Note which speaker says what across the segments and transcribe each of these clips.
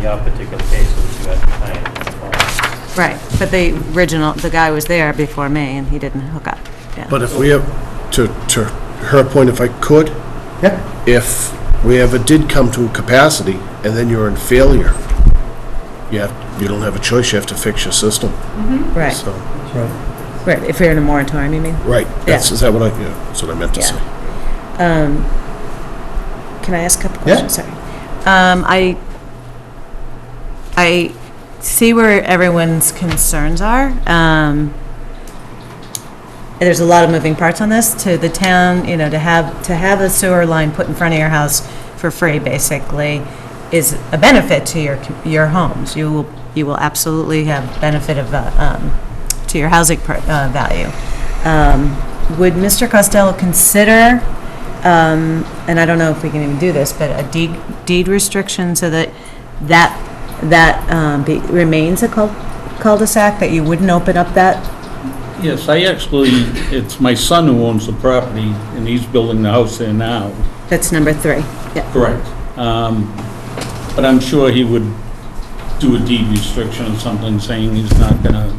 Speaker 1: your particular case, it was you had client.
Speaker 2: Right, but the original, the guy was there before me, and he didn't hook up, yeah.
Speaker 3: But if we have, to, to her point, if I could,
Speaker 4: Yeah,
Speaker 3: if we ever did come to a capacity and then you're in failure, you have, you don't have a choice, you have to fix your system,
Speaker 5: Right,
Speaker 3: so.
Speaker 4: that's right.
Speaker 5: right, if you're in a moratorium, you mean?
Speaker 3: Right, that's, is that what I, yeah, that's what I meant to say.
Speaker 5: Um, Can I ask a couple
Speaker 4: Yeah.
Speaker 5: questions? Sorry.
Speaker 2: Um, I, I see where everyone's concerns are. Um, there's a lot of moving parts on this to the town, you know, to have, to have a sewer line put in front of your house for free basically is a benefit to your, com- your homes. You will, you will absolutely have benefit of, uh, um, to your housing per, uh, value. Um, would Mr. Costello consider, um, and I don't know if we can even do this, but a deed, deed restriction so that that, that, um, be, remains a cul- cul-de-sac, that you wouldn't open up that
Speaker 6: Yes, I actually, it's my son who owns the property, and he's building the house there now.
Speaker 2: That's number three, yeah.
Speaker 6: Correct. But I'm sure he would do a deed restriction or something, saying he's not gonna...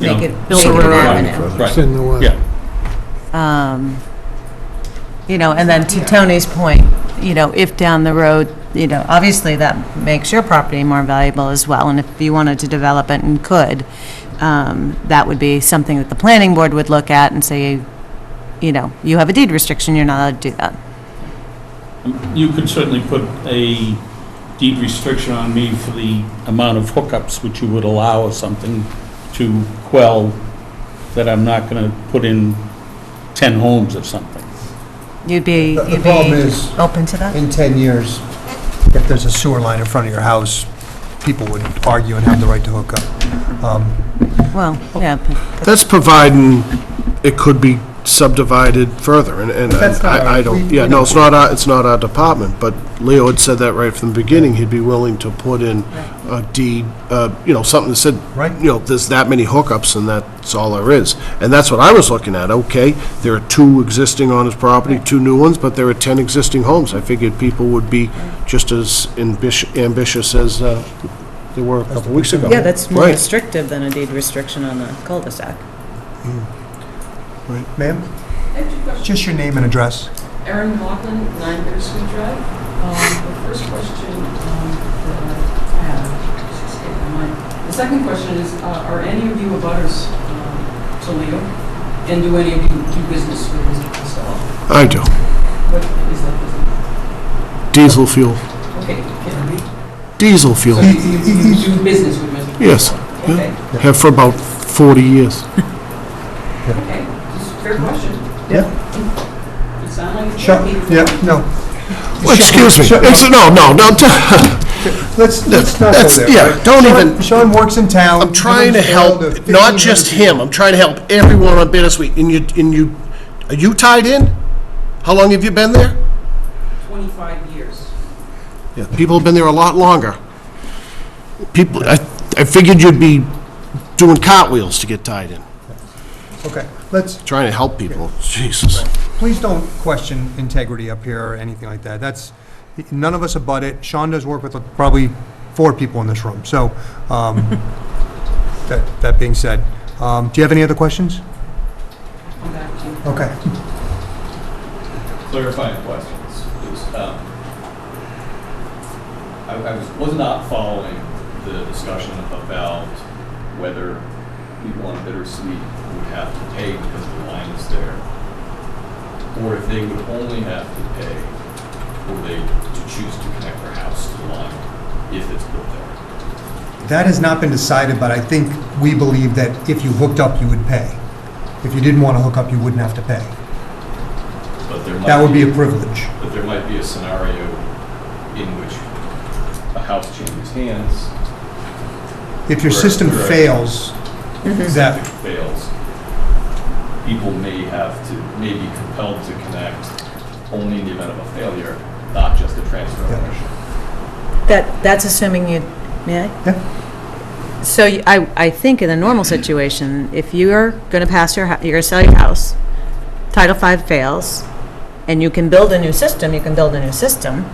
Speaker 6: you
Speaker 2: Make
Speaker 6: know,
Speaker 2: it- build
Speaker 6: sort
Speaker 2: it
Speaker 6: of-
Speaker 2: around
Speaker 6: Right,
Speaker 2: it.
Speaker 6: Right,
Speaker 4: in the way.
Speaker 6: yeah,
Speaker 2: Um, You know, and then to Tony's point, you know, if down the road, you know, obviously that makes your property more valuable as well, and if you wanted to develop it and could, um, that would be something that the planning board would look at and say, you know, you have a deed restriction, you're not allowed to do that.
Speaker 6: you could certainly put a deed restriction on me for the amount of hookups which you would allow or something to quell that I'm not gonna put in 10 homes or something.
Speaker 2: You'd be,
Speaker 4: The- the
Speaker 2: you'd
Speaker 4: problem
Speaker 2: be
Speaker 4: is-
Speaker 2: open to that?
Speaker 4: In 10 years, if there's a sewer line in front of your house, people would argue and have the right to hook up. Um,
Speaker 2: Well, yeah,
Speaker 4: Oh.
Speaker 2: but-
Speaker 3: That's providing it could be subdivided further, and, and
Speaker 4: that's not
Speaker 3: I, I
Speaker 4: our-
Speaker 3: don't,
Speaker 4: we-
Speaker 3: yeah,
Speaker 4: we
Speaker 3: no,
Speaker 4: don't-
Speaker 3: it's not our, it's not our department, but Leo had said that right from the beginning, he'd be willing to put in a deed, uh, you know, something that said,
Speaker 4: Right.
Speaker 3: you know, there's that many hookups, and that's all there is. And that's what I was looking at, okay, there are two existing on his property, two new ones, but there are ten existing homes. I figured people would be just as ambitious, ambitious as, uh, they were a couple weeks ago.
Speaker 5: Yeah, that's more
Speaker 3: Right.
Speaker 5: restrictive than a deed restriction on a cul-de-sac.
Speaker 4: Ma'am,
Speaker 7: I have two questions.
Speaker 4: just your name and address.
Speaker 7: Erin Lachlan, 9 Bittersweet Drive. Um, The first question um, that I have, it's escaped my mind. The second question is, uh, are any of you abutters um, to Leo? And do any of you do business with Mr. Costello?
Speaker 3: I do,
Speaker 7: What is that business?
Speaker 3: diesel fuel,
Speaker 7: Okay, can we?
Speaker 3: diesel fuel.
Speaker 7: So you you do business with Mr. Costello?
Speaker 3: Yes.
Speaker 4: Hmm?
Speaker 7: Okay,
Speaker 3: have for about 40 years.
Speaker 7: okay. Just fair question.
Speaker 4: Yeah.
Speaker 7: It sounded like. it's
Speaker 4: Sure,
Speaker 7: okay.
Speaker 4: yeah, no.
Speaker 3: Excuse me,
Speaker 4: Sure.
Speaker 3: it's, no, no, no,
Speaker 4: Let's, let's not go
Speaker 3: that's,
Speaker 4: there.
Speaker 3: yeah, don't even,
Speaker 4: Sean works in town.
Speaker 3: I'm trying to help, not just him, I'm trying to help everyone on Bittersweet, and you, and you, are you tied in? How long have you been there?
Speaker 7: 25 years.
Speaker 3: Yeah, people have been there a lot longer. People, I, I figured you'd be doing cartwheels to get tied in,
Speaker 4: Okay, let's,
Speaker 3: trying to help people, Jesus.
Speaker 4: please don't question integrity up here or anything like that. That's, none of us abut it. Sean does work with probably four people in this room, so, um, that, that being said, um, do you have any other questions?
Speaker 7: Come back to you.
Speaker 4: Okay.
Speaker 8: clarifying questions, please. Um, I I was, was not following the discussion about whether people on Bittersweet would have to pay because the line is there, or if they would only have to pay were they to choose to connect their house to the line if it's built there.
Speaker 4: That has not been decided, but I think we believe that if you hooked up, you would pay. If you didn't want to hook up, you wouldn't have to pay.
Speaker 8: But there
Speaker 4: That would
Speaker 8: might
Speaker 4: be
Speaker 8: be,
Speaker 4: a privilege.
Speaker 8: but there might be a scenario in which a house changes hands,
Speaker 4: If your
Speaker 8: Correct,
Speaker 4: system
Speaker 8: correct.
Speaker 4: fails, that,
Speaker 8: fails, people may have to, may be compelled to connect only in the event of a failure, not just a transfer of
Speaker 4: Yeah.
Speaker 8: ownership.
Speaker 2: that, that's assuming you, may I?
Speaker 4: Yeah.
Speaker 2: So you- I, I think in a normal situation, if you are going to pass your, hou- you're going to sell your house, Title V fails, and you can build a new system, you can build a new system,